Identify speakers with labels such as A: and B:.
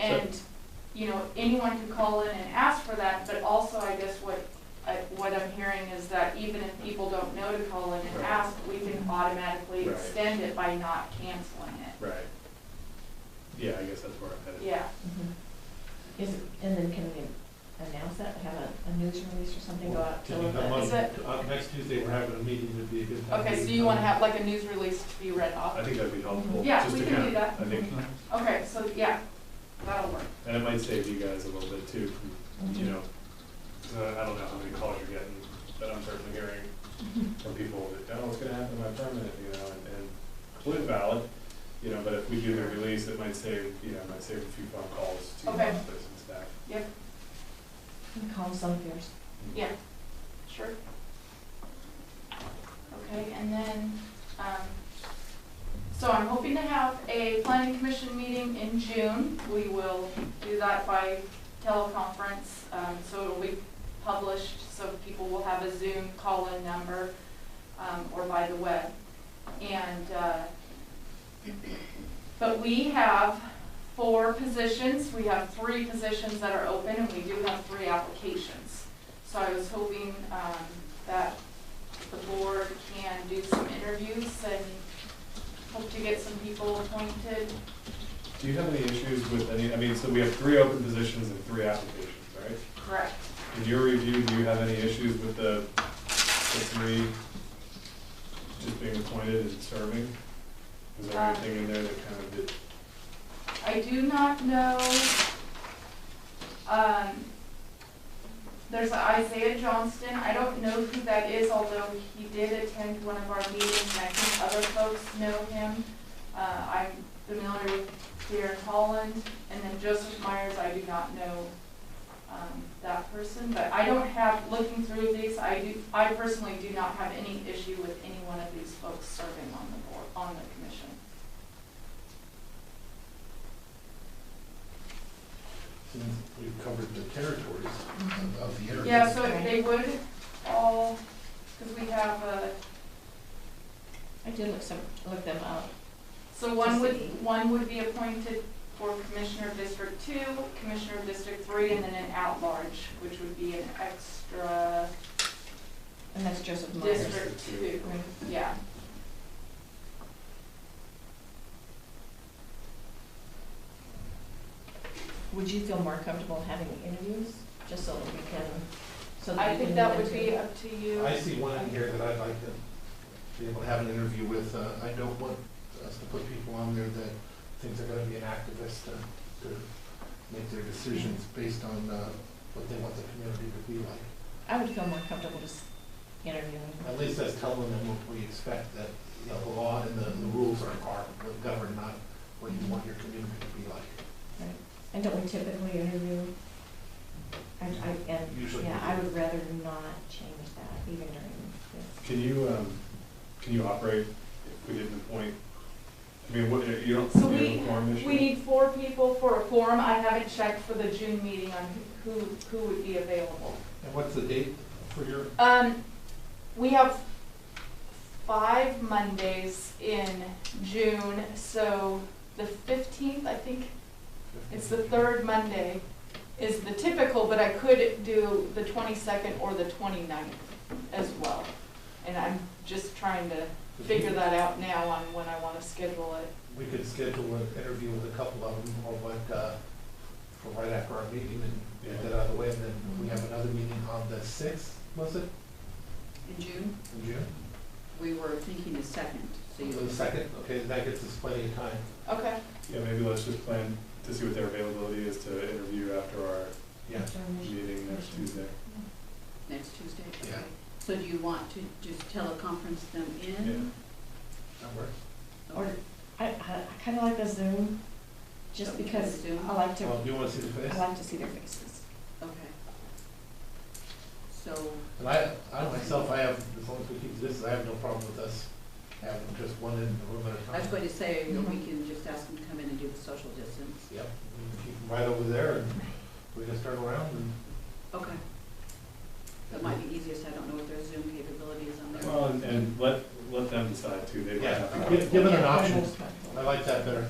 A: And, you know, anyone can call in and ask for that, but also I guess what, I- what I'm hearing is that even if people don't know to call in and
B: Right.
A: ask, we can automatically
B: Right.
A: extend it by not canceling it.
B: Right. Yeah, I guess that's where I'm headed.
A: Yeah,
C: Mhm. Is, and then can we announce that, have a, a news release or something go out to
D: Can you come
A: on?
C: the,
A: Is it-
D: up- uh, Next Tuesday, we're having a meeting, it'd be a good time.
A: okay, so you wanna have like a news release to be read
B: I
A: off?
B: think that'd be helpful.
A: Yeah,
B: just
A: we
B: to
A: can
B: kind
A: do
B: of-
A: that.
B: I think,
A: Okay, so, yeah, that'll work.
B: and it might save you guys a little bit too, from, you know, 'cause I I don't know how many calls you're getting, but I'm certainly hearing from people that, oh, what's gonna happen to my permit, you know, and, and completely valid, you know, but if we do the release, it might save, you know, it might save a few phone calls to
A: Okay.
B: office and staff.
C: calm Mm-hmm. some fears?
A: Yeah. Sure. Okay, and then, um, so I'm hoping to have a planning commission meeting in June. We will do that by teleconference, um, so it'll be published, so people will have a Zoom call-in number, um, or by the web. And, uh, but we have four positions, we have three positions that are open, and we do have three applications. So I was hoping um, that the board can do some interviews and hope to get some people appointed.
B: Do you have any issues with any, I mean, so we have three open positions and three applications, right?
A: Correct.
B: In your review, do you have any issues with the, the three just being appointed and serving? Is there
A: Um,
B: anything in there that kind of did,
A: I do not know, um, there's Isaiah Johnston, I don't know who that is, although he did attend one of our meetings, and I think other folks know him. Uh, I'm familiar with Darren Holland, and then Joseph Myers, I do not know, um, that person, but I don't have, looking through these, I do, I personally do not have any issue with any one of these folks serving on the board, on the commission.
D: Since We've covered the territories
C: Mm-hmm.
D: of the area.
A: Yeah, so if they would all, because we have uh, a,
C: I did look some, look them up.
A: so one would, one would be appointed for Commissioner of District Two, Commissioner of District Three, and then an at-large, which would be an extra
C: And that's Joseph Myers.
A: District Two,
B: District
A: yeah.
C: Would you feel more comfortable having interviews, just so that we can, so
A: I
C: that we
A: think
C: can
A: that
C: move
A: would
C: into-
A: be up to you.
D: I see one in here that I'd like to be able to have an interview with. Uh, I don't want us to put people on there that think they're gonna be an activist to, to make their decisions based on, uh, what they want the community to be like.
C: I would feel more comfortable just interviewing.
D: At least that's telling them what we expect, that, you know, the law and the, the rules are, are what govern, not what you want your community to be like.
C: And don't we typically interview? I, I, and,
D: Usually
C: yeah,
D: we
C: I
D: do.
C: would rather not change that even during this.
B: can you, um, can you operate if we didn't appoint? I mean, what, you don't,
A: So
B: you
A: we-
B: don't form issue?
A: We need four people for a quorum. I haven't checked for the June meeting on who, who would be available.
D: And what's the date for your?
A: Um, we have five Mondays in June, so the fifteenth, I think, it's the third Monday, is the typical, but I could do the twenty-second or the 29th as well. And I'm just trying to figure that out now on when I wanna schedule it.
D: We could schedule an interview with a couple of them, or like, uh, for right after our meeting and get that out of the way, and then we have another meeting on the sixth, was it,
E: In June,
D: in June?
E: we were thinking the second, so you.
D: So the second, okay, that gives us plenty of time.
A: Okay,
B: Yeah, maybe let's just plan to see what their availability is to interview after our
D: Yeah.
B: meeting next Tuesday.
E: Next Tuesday?
D: Yeah.
E: okay. So do you want to just teleconference them in?
B: Yeah.
D: That works.
C: Or, I, I, I kinda like the Zoom, just
E: Okay,
C: because
E: Zoom.
C: I like to,
D: Well, do you wanna see the face?
E: Uh-huh.
C: I like to see their faces.
E: Okay. So,
D: And I, I myself, I have, as long as we keep this, I have no problem with us having just one in the room at a
E: I was
D: time.
E: going to say, you know, we can just ask them to come in and do the social distance.
D: Yep, we can keep them right over there, and we just turn around and.
E: Okay, that might be easiest, I don't know what their Zoom capability is on there.
B: Well, and, and let, let them decide too, they might
D: Yeah,
B: have.
D: give- give it an
C: Yeah, I'm
D: option.
C: most comfortable.
D: I like that better.